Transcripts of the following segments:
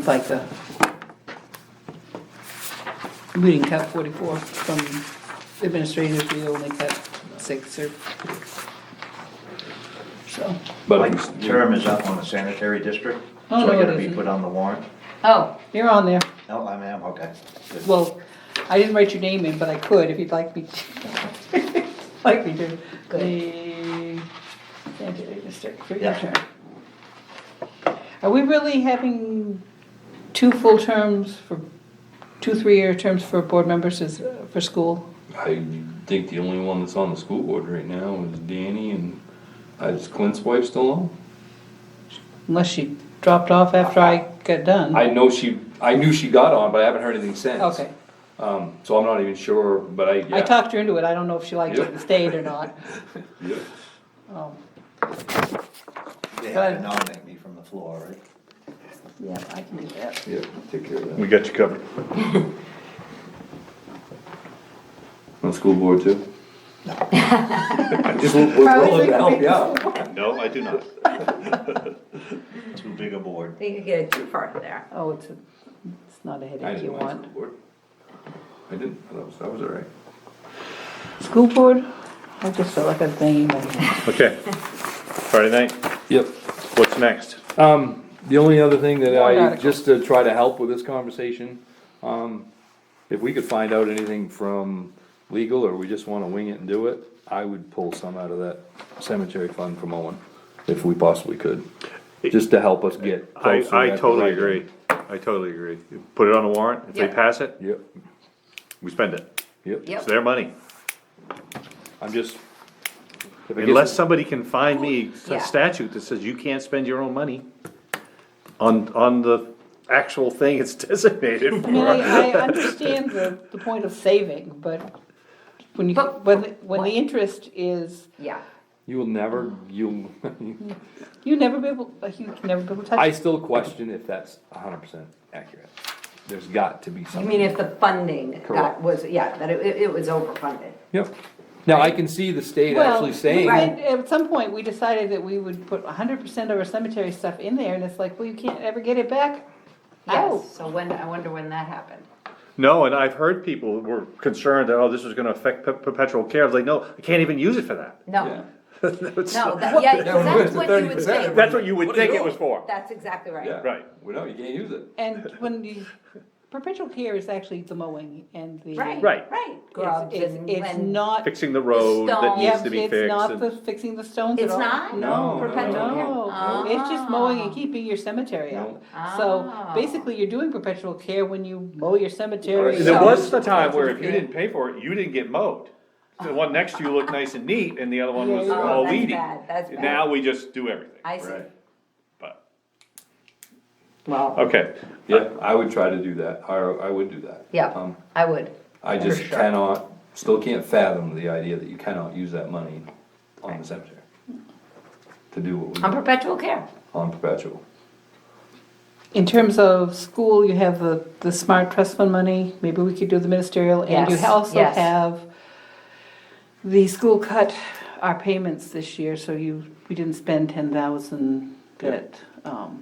FICA. We didn't cut forty-four from administrators, we only cut six or. So, But Mike's term is up on the sanitary district, Oh, no, so I it gotta be isn't. put on the warrant. oh, you're on there. No, I am, okay. Good. Well, I didn't write your name in, but I could if you'd like me to. Like me to. Good. The sanitary district for your Yeah. term. Are we really having two full terms for, two three-year terms for board members is, uh, for school? I think the only one that's on the school board right now is Danny and, uh, is Clint's wife still on? Unless she dropped off after I got done. I know she, I knew she got on, but I haven't heard anything since. Okay, Um, so I'm not even sure, but I, yeah. I talked her into it, I don't know if she liked it Yeah. and stayed or not. Yeah. Oh, They have to nominate me from the floor, right? yeah, I can do that. Yeah, take care of that. We got you covered. On school board too? I just, no, Probably willing to could help be- you out. I do not. Too big a board. You could get it too far there. Oh, it's, a- it's not a I headache you didn't mind want. school board. I didn't, I was, I was all right. School board, I just felt like I was banging my head. Okay. Friday night, Yep. what's next? Um, the only other thing that Warrant I, article. just to try to help with this conversation, um, if we could find out anything from legal, or we just wanna wing it and do it, I would pull some out of that cemetery fund from Owen, if we possibly could, just to help us get. I, closer I at the totally right agree. end. I totally agree. You Put it on a warrant, if they Yeah. pass it, Yep, we spend it. yep, Yep. It's their money. I'm just. if it gets- Unless somebody can find me Yeah. a statute that says you can't spend your own money on, on the actual thing it's designated I mean, for. I, I understand the, the point of saving, but when you, But- when, the- when the interest is, Yeah. You will never, you'll, you never be able, like, you can never be able to I touch. it. still question if that's hundred percent accurate, there's got to be You something. mean if the funding Correct. got, was, yeah, that it, it was overfunded. Yep, now I can see the state Well, actually saying. Right, at some point, we decided that we would put hundred percent of our cemetery stuff in there, and it's like, well, you can't ever get it back. Ow. Yes, Oh. so when, I wonder when that happened. No, and I've heard people were concerned that, oh, this was gonna affect pe- perpetual care. I was like, no, I can't even use it for that. Yeah. No, That's- no, that, yeah, 'cause that's what you would think. That's what you would are you think it doing? was for. That's exactly Yeah. right. Right. Well, no, you can't use it. And when the perpetual care is actually the mowing and the. Right, Right. right. It's, Grubs it's, and it's when- not, Fixing the road that stone. needs yeah, to be it's fixed. not the and- fixing the stones at It's all. not? Ah. No, Perpetual care? No, it's just mowing and keeping your cemetery up. So Oh. basically, you're doing perpetual care when you mow your cemetery. There up. was a time where if you Yeah. didn't pay for it, you didn't get mowed. The one next to you looked nice and neat and the other one was Yeah. Oh, all that's weedy. bad, that's bad. Now we just do everything, I see. but, Well, okay. Yeah, I would try to do that, I, I would do that. yeah, Um, I would. I just sure. cannot, still can't fathom the idea that you cannot use that money on the cemetery. To do what On we, perpetual care. on perpetual. In terms of school, you have the, the smart trust fund money, maybe we could do the ministerial, and you Yes, also yes. have the school cut our payments this year, so you, we didn't spend ten thousand that, um,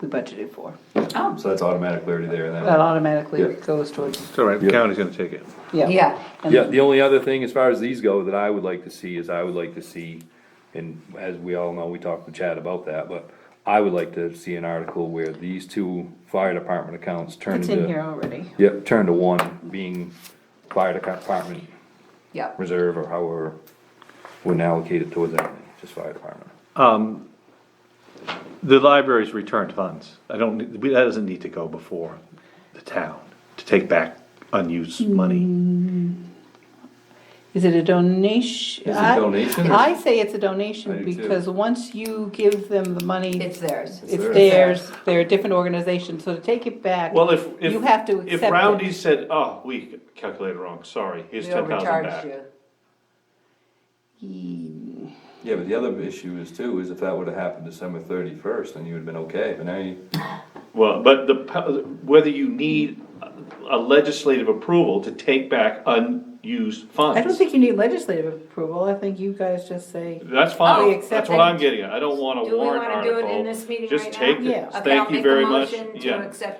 we budgeted for. Oh, So that's automatic clarity there then. That automatically Yeah. goes towards, It's all right, the county's gonna take it. yeah. yeah, And Yeah, the only other thing, as far as these go, that I would like to see is I would like to see, and as we all know, we talked to Chad about that, but I would like to see an article where these two fire department accounts turn It's into. in here already. Yep, turn to one, being fire department yeah. reserve or however, wouldn't allocate it towards anything, just fire department. The library's returned funds, I don't, need- we- that doesn't need to go before the town to take back unused Mm-hmm. money. Is it a donation? Is it I- donation or- I say it's a I donation do too. because once you give them the money, It's theirs. it's theirs. theirs, they're a different organization, so to take it back, Well, if, if. you have to If accept Roundy it. said, oh, we calculated wrong, sorry, here's We ten thousand overcharged back. you. Yeah, but the other issue is too, is if that would've happened December thirty-first, then you would've been okay, but now you. Well, but the, po- whether you need a legislative approval to take back un, unused funds. I don't think you need legislative approval, I think you guys just say, That's we fine, accept that's what it. I'm getting at, I don't want a Oh, Do we warrant wanna do article. it in this meeting Just right now? take it. Yeah. Okay, Thank I'll you make a very much. motion To Yeah. accept